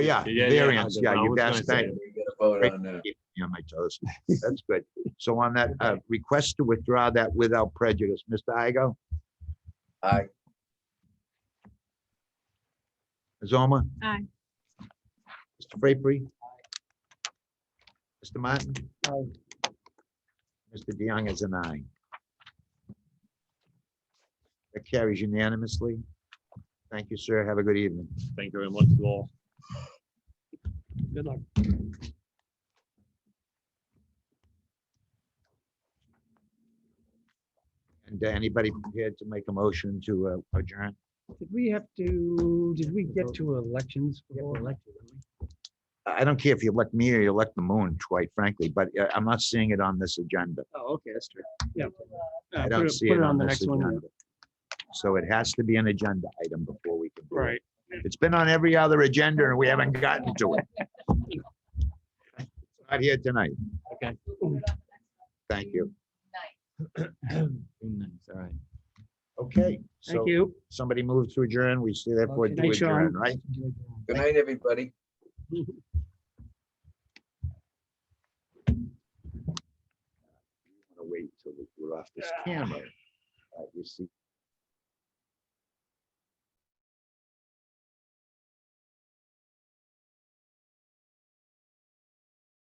Yeah, Yeah, yeah, I variance, did- yeah, I you was gonna guys, thank say. you. We get a vote on that. Yeah, my toes. That's good. So on that, uh, request to withdraw that without prejudice, Mr. Igo, Aye. Azoma? Aye. Mr. Frapery? Mr. Martin? Mr. DeYoung is an aye. That carries unanimously. Thank you, sir. Have a good evening. Thank you very much to all. Good luck. And uh, anybody prepared to make a motion to uh, adjourn? Did we have to, did we get to elections? before? I don't care if you elect me or you elect the moon, quite frankly, but uh, I'm not seeing it on this agenda. Oh, okay, that's true. Yeah. Uh, I put don't see put it on the this next one. agenda. So it has to be an agenda item before we can. do it. Right. It's been on every other agenda and we haven't gotten to it. It's Not here tonight. Okay. Thank you. All right. Okay, so Thank you. somebody moves to adjourn, we see therefore Okay. do Thanks, Sean. adjourn, right? Good night, everybody. Wait till we're off this camera. Uh, You see.